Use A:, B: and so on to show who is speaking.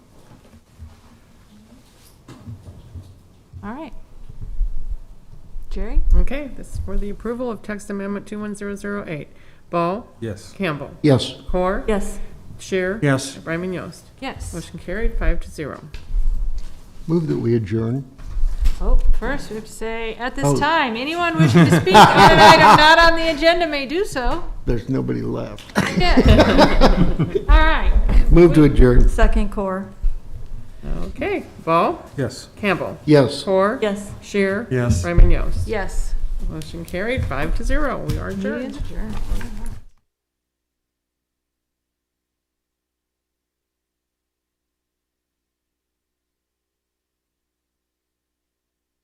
A: All right. Jerry?
B: Okay, this is for the approval of text amendment 21008. Ball,
C: Yes.
B: Campbell,
D: Yes.
B: Core,
A: Yes.
B: Shear.
C: Yes.
B: Bryman Yost.
A: Yes.
B: Motion carried, five to zero.
D: Move that we adjourn.
A: Oh, first we have to say, at
D: Oh.
A: this time, anyone wishing to speak on an item not on the agenda may do so.
D: There's nobody left.
A: Yeah. All right.
D: Move to adjourn.
E: Second core,
B: Okay, Ball,
C: Yes.
B: Campbell,
D: Yes.
B: Core.
E: yes.
B: Shear.
C: Yes.
B: Bryman Yost.
A: Yes.
B: Motion carried, five to zero. We are adjourned.
A: Adjourned.